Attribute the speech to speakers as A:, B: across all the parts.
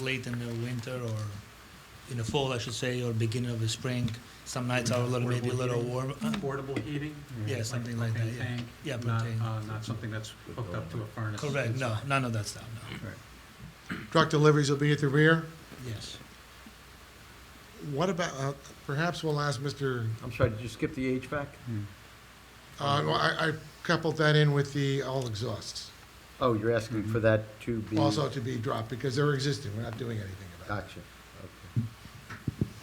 A: late in the winter or in the fall, I should say, or beginning of the spring. Some nights are a little, maybe a little warm. uh,
B: Portable heating?
A: Yeah, something like that,
B: propane
A: yeah.
B: tank,
A: Yeah,
B: Not,
A: propane.
B: uh, not something that's hooked up to a furnace.
A: Correct, no, none of that stuff, no,
C: Truck deliveries will be at the rear.
A: yes.
C: What about, uh, perhaps we'll ask Mr.,
D: I'm sorry, did you skip the HVAC?
C: uh, well, I I coupled that in with the all exhausts,
D: Oh, you're asking for that to
A: Mm.
D: be?
C: also to be dropped, because they're existing, we're not doing anything about it.
D: Gotcha, okay.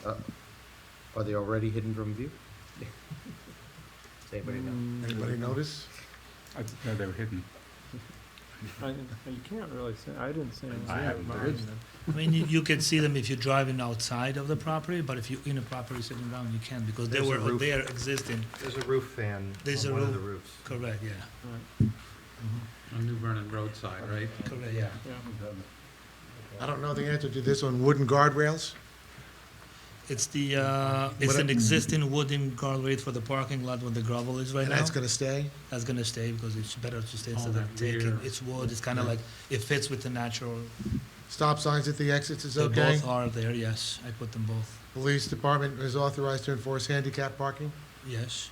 D: Uh, Are they already hidden from view? Does anybody
E: Mm,
D: know?
C: Anybody notice?
F: I didn't know they were hidden.
G: I didn't, you can't really say, I didn't see anything.
F: I haven't
G: about
F: been.
G: mine.
A: I mean, you- you can see them if you're driving outside of the property, but if you're in a property sitting down, you can't, because they
H: There's a
A: were,
H: roof.
A: they are existing,
H: There's a roof fan
A: There's
H: on
A: a
H: one of the
A: roof-
H: roofs.
A: correct, yeah,
B: On New Vernon roadside, right?
A: correct, yeah.
G: Yeah.
F: Mm-hmm,
C: I don't know the answer to this on wooden guardrails.
A: It's the, uh,
H: Mm-hmm.
A: it's
C: What I-
A: an existing wooden guardrail for the parking lot where the gravel is right
C: And
A: now.
C: that's gonna stay?
A: That's gonna stay because it's better to stay
B: All
A: instead of
B: that
A: taking,
B: rear-
A: it's wood, it's kinda like, it fits with the natural.
C: Stop signs at the exits is
A: They
C: okay?
A: both are there, yes, I put them both,
C: Police department is authorized to enforce handicap parking?
A: yes.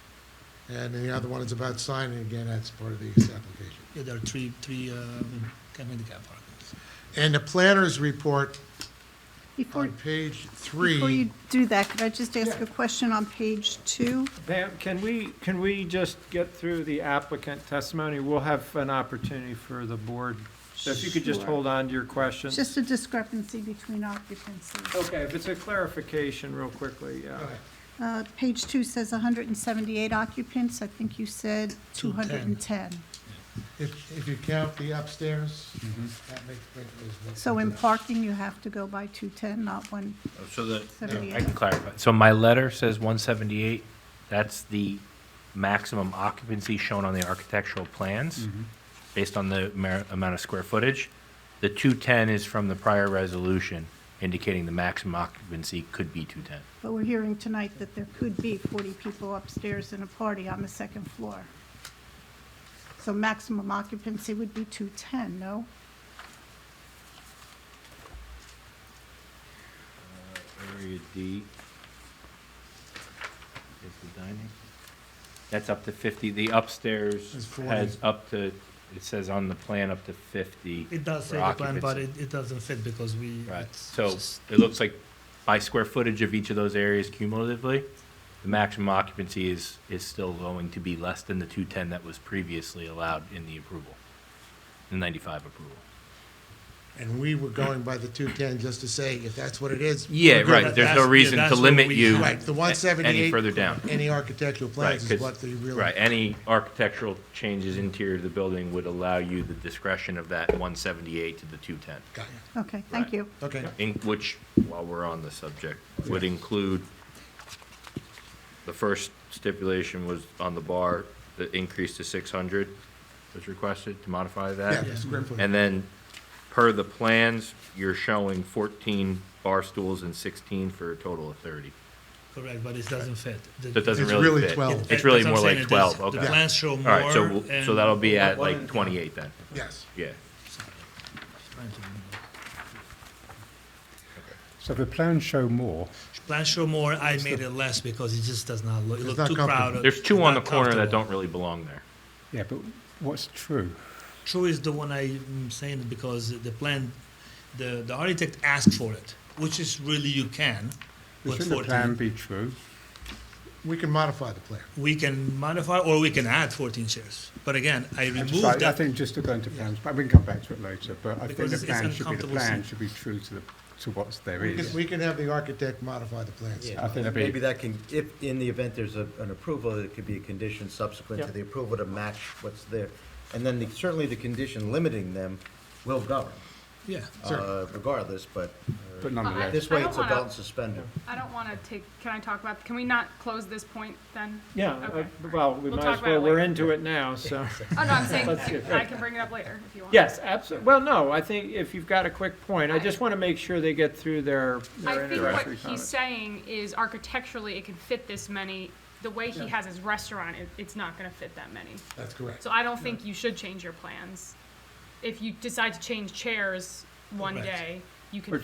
C: And the other one is about signing, again, that's part of the application.
A: Yeah, there are three, three, uh,
C: Mm-hmm.
A: handicap parkings.
C: And the planner's report
I: Before,
C: on page three.
I: before you do that, could I just ask a question on page two?
G: Pam, can we, can we just get through the applicant testimony? We'll have an opportunity for the board. So if you could just
D: Sure.
G: hold on to your questions.
I: Just a discrepancy between occupancies.
G: Okay, if it's a clarification real quickly, yeah.
I: Uh, Page two says 178 occupants, I think you said
A: 210.
I: 210.
C: If, if you count the upstairs, that makes, makes.
I: So in parking, you have to go by 210, not
J: So the, I
I: 178.
J: can clarify. So my letter says one seventy-eight, that's the maximum occupancy shown on the architectural plans,
F: Mm-hmm.
J: based on the mer- amount of square footage. The two-ten is from the prior resolution indicating the maximum occupancy could be two-ten.
I: But we're hearing tonight that there could be 40 people upstairs in a party on the second floor. So maximum occupancy would be 210, no?
J: Area D. Is the dining? That's up to fifty. The
C: It's
J: upstairs
C: 40.
J: has up to, it says on the plan up to fifty.
A: It does
J: For
A: say the plan, but it,
J: occupancy.
A: it doesn't fit because we.
J: Right,
A: it's
J: so
A: just-
J: it looks like by square footage of each of those areas cumulatively, the maximum occupancy is, is still going to be less than the two-ten that was previously allowed in the approval, the ninety-five approval.
C: And we were going by the two-ten just to say, if that's what it is.
J: Yeah,
C: we're good.
J: right, there's
A: That's-
J: no
A: yeah,
J: reason
A: that's
J: to
A: what
J: limit
A: we
J: you
A: have.
C: Right, the one
J: any
C: seventy-eight,
J: further down.
C: any architectural plans
J: Right,
C: is
J: 'cause-
C: what the real.
J: Right, any architectural changes interior to the building would allow you the discretion of that one seventy-eight to the two-ten.
C: Got
I: Okay, thank
J: Right.
I: you.
C: it, okay.
J: in, which, while we're on the subject, would include, the first stipulation was on the bar, the increase to six hundred was requested to modify
C: Yeah,
J: that.
C: the square footage.
J: And then, per the plans, you're showing fourteen bar stools and sixteen for a total of thirty.
A: Correct, but it doesn't fit. The-
J: That doesn't
C: It's
J: really fit.
C: really 12.
J: It's really
A: that's what
J: more
A: I'm saying,
J: like
A: it
J: twelve,
A: does-
J: okay.
A: The plans show more.
J: All right, so, we'll- so
A: and-
J: that'll be at like twenty-eight then,
C: Yes.
J: yeah.
A: Trying to remember.
F: So the plans show more.
A: Plans show more, I made it less because it just does not look, it
C: It's
A: looked
C: not
A: too
C: comfortable.
A: crowded.
J: There's two
A: it's
J: on the
A: not
J: corner that
A: comfortable.
J: don't really belong there.
F: Yeah, but what's true?
A: True is the one I'm saying because the plan, the, the architect asked for it, which is really you can. with
F: Shouldn't the
A: 14.
F: plan be true?
C: We can modify the plan.
A: We can modify or we can add fourteen chairs. But again, I
F: I'm
A: removed
F: sorry, I
A: that.
F: think just to go into plans, but we can come back to it later, but I
A: Because
F: think the
A: it's- it's
F: plan should be, the
A: uncomfortable
F: plan
A: seat.
F: should be true to the, to what's there
C: We can,
F: is.
C: we can have the architect modify the plans.
F: I think that'd be-
D: Maybe that can, if, in the event there's a, an approval, it could be a condition subsequent to
G: Yeah.
D: the approval to match what's there. And then the- certainly the condition limiting them will govern,
A: Yeah.
D: uh, regardless, but uh,
F: But nonetheless,
D: this way
E: I don't
D: it's a
E: wanna-
D: belt and suspender.
E: I don't want to take, can I talk about, can we not close this point then?
G: Yeah,
E: Okay.
G: I- well, we
E: We'll
G: might
E: talk
G: as well,
E: about it
G: we're
E: later.
G: into it now, so.
E: Oh, no, I'm saying,
G: Let's get-
E: I can bring it up later if you want.
G: Yes, absolutely. Well, no, I think if you've got a quick point, I just want to make sure they get through their, their
E: I think what
G: introductory
E: he's
G: comments.
E: saying is architecturally, it can fit this many. The way he has his restaurant, it, it's not going to fit that many.
C: That's correct.
E: So I don't think you should change your plans. If you decide to change chairs one
A: Correct.
E: day, you can
G: Or